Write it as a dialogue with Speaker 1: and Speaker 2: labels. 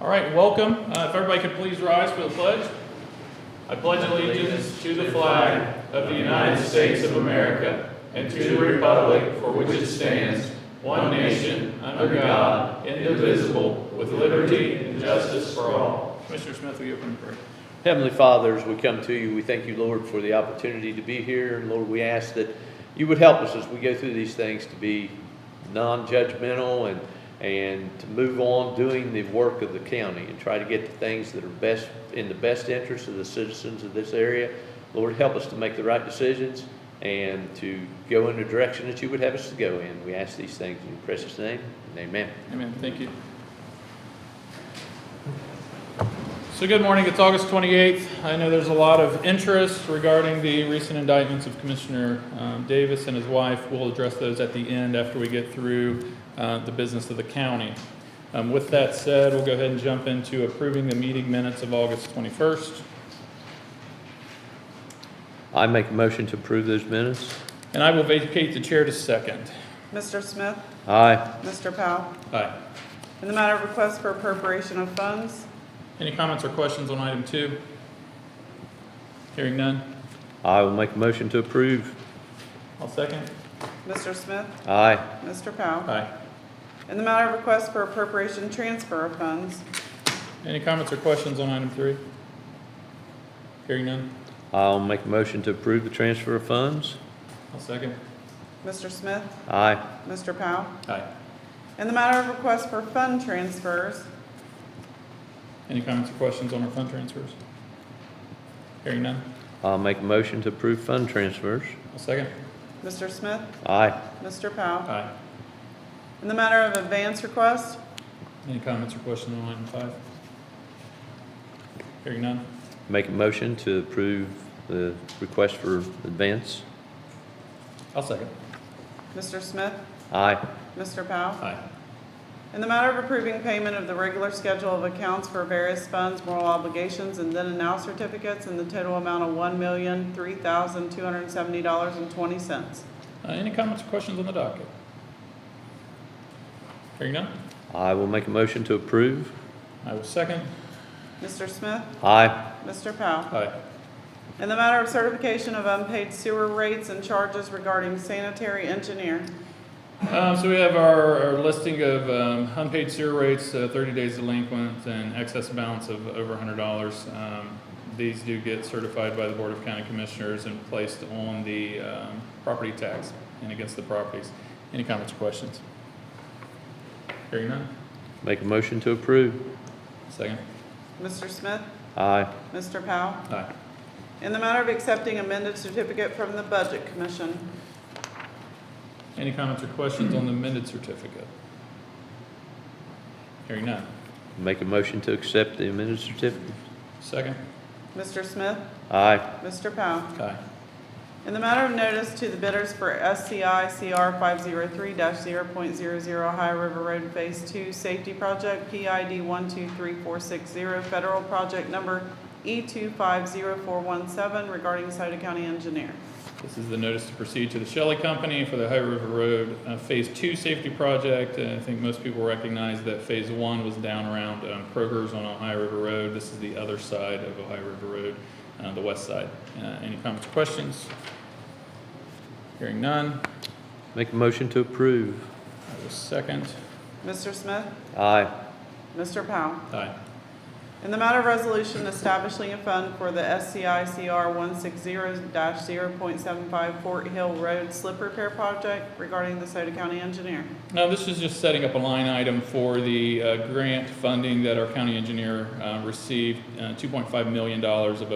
Speaker 1: All right, welcome. Uh, If everybody could please rise for the pledge. I pledge allegiance to the flag of the United States of America and to the republic for which it stands, one nation, under God, indivisible, with liberty and justice for all. Commissioner Smith, will you open in prayer?
Speaker 2: Heavenly Father, as we come to you, we thank you, Lord, for the opportunity to be here. And Lord, we ask that you would help us as we go through these things to be non-judgmental and, and to move on doing the work of the county and try to get the things that are best, in the best interest of the citizens of this area. Lord, help us to make the right decisions and to go in the direction that you would have us to go in. We ask these things in your precious name, and amen.
Speaker 1: Amen, thank you. So good morning, it's August 28th. I know there's a lot of interest regarding the recent indictments of Commissioner um, Davis and his wife. We'll address those at the end after we get through uh, the business of the county. Um, With that said, we'll go ahead and jump into approving the meeting minutes of August 21st.
Speaker 2: I make a motion to approve those minutes.
Speaker 1: And I will vacate the chair to second.
Speaker 3: Mr. Smith,
Speaker 2: Aye.
Speaker 3: Mr. Powell.
Speaker 1: Aye.
Speaker 3: In the matter of request for appropriation of funds,
Speaker 1: Any comments or questions on item two? Hearing none,
Speaker 2: I will make a motion to approve.
Speaker 1: I'll second.
Speaker 3: Mr. Smith,
Speaker 2: Aye.
Speaker 3: Mr. Powell.
Speaker 1: Aye.
Speaker 3: In the matter of request for appropriation transfer of funds,
Speaker 1: Any comments or questions on item three? Hearing none,
Speaker 2: I'll make a motion to approve the transfer of funds.
Speaker 1: I'll second.
Speaker 3: Mr. Smith,
Speaker 2: Aye.
Speaker 3: Mr. Powell.
Speaker 1: Aye.
Speaker 3: In the matter of request for fund transfers,
Speaker 1: Any comments or questions on our fund transfers? Hearing none,
Speaker 2: I'll make a motion to approve fund transfers.
Speaker 1: I'll second.
Speaker 3: Mr. Smith,
Speaker 2: Aye.
Speaker 3: Mr. Powell.
Speaker 1: Aye.
Speaker 3: In the matter of advance request,
Speaker 1: Any comments or questions on item five? Hearing none,
Speaker 2: Make a motion to approve the request for advance.
Speaker 1: I'll second.
Speaker 3: Mr. Smith,
Speaker 2: Aye.
Speaker 3: Mr. Powell.
Speaker 1: Aye.
Speaker 3: In the matter of approving payment of the regular schedule of accounts for various funds, moral obligations, and then and now certificates in the total amount of one million, three thousand, two hundred and seventy dollars and twenty cents.
Speaker 1: Uh, any comments or questions on the docket? Hearing none,
Speaker 2: I will make a motion to approve.
Speaker 1: I will second.
Speaker 3: Mr. Smith,
Speaker 2: Aye.
Speaker 3: Mr. Powell.
Speaker 1: Aye.
Speaker 3: In the matter of certification of unpaid sewer rates and charges regarding sanitary engineer,
Speaker 1: Um, so we have our, our listing of, um, unpaid sewer rates, uh, thirty days delinquent and excess balance of over hundred dollars. Um, these do get certified by the Board of County Commissioners and placed on the, um, property tax and against the properties. Any comments or questions? Hearing none,
Speaker 2: Make a motion to approve.
Speaker 1: second.
Speaker 3: Mr. Smith,
Speaker 2: Aye.
Speaker 3: Mr. Powell.
Speaker 1: Aye.
Speaker 3: In the matter of accepting amended certificate from the Budget Commission,
Speaker 1: Any comments or questions on the amended certificate? Hearing none,
Speaker 2: Make a motion to accept the amended certificate.
Speaker 1: second.
Speaker 3: Mr. Smith,
Speaker 2: Aye.
Speaker 3: Mr. Powell.
Speaker 1: Aye.
Speaker 3: In the matter of notice to the bidders for SCI CR 503-0.00 High River Road Phase 2 Safety Project, PID 123460, Federal Project Number E E250417 regarding Sota County Engineer.
Speaker 1: This is the notice to proceed to the Shelley Company for the High River Road uh, Phase Two Safety Project. Uh, I think most people recognize that Phase One was down around um, Kroger's on Ohio River Road. This is the other side of Ohio River Road, uh, the west side. Uh, Any comments or questions? Hearing none,
Speaker 2: Make a motion to approve.
Speaker 1: I will second.
Speaker 3: Mr. Smith?
Speaker 2: Aye.
Speaker 3: Mr. Powell?
Speaker 1: Aye.
Speaker 3: In the matter of resolution establishing a fund for the SCI CR 160-0.75 Fort Hill Road Slip Repair Project regarding the Sota County Engineer.
Speaker 1: No, this is just setting up a line item for the uh, grant funding that our county engineer uh, received, uh, $2.5 million of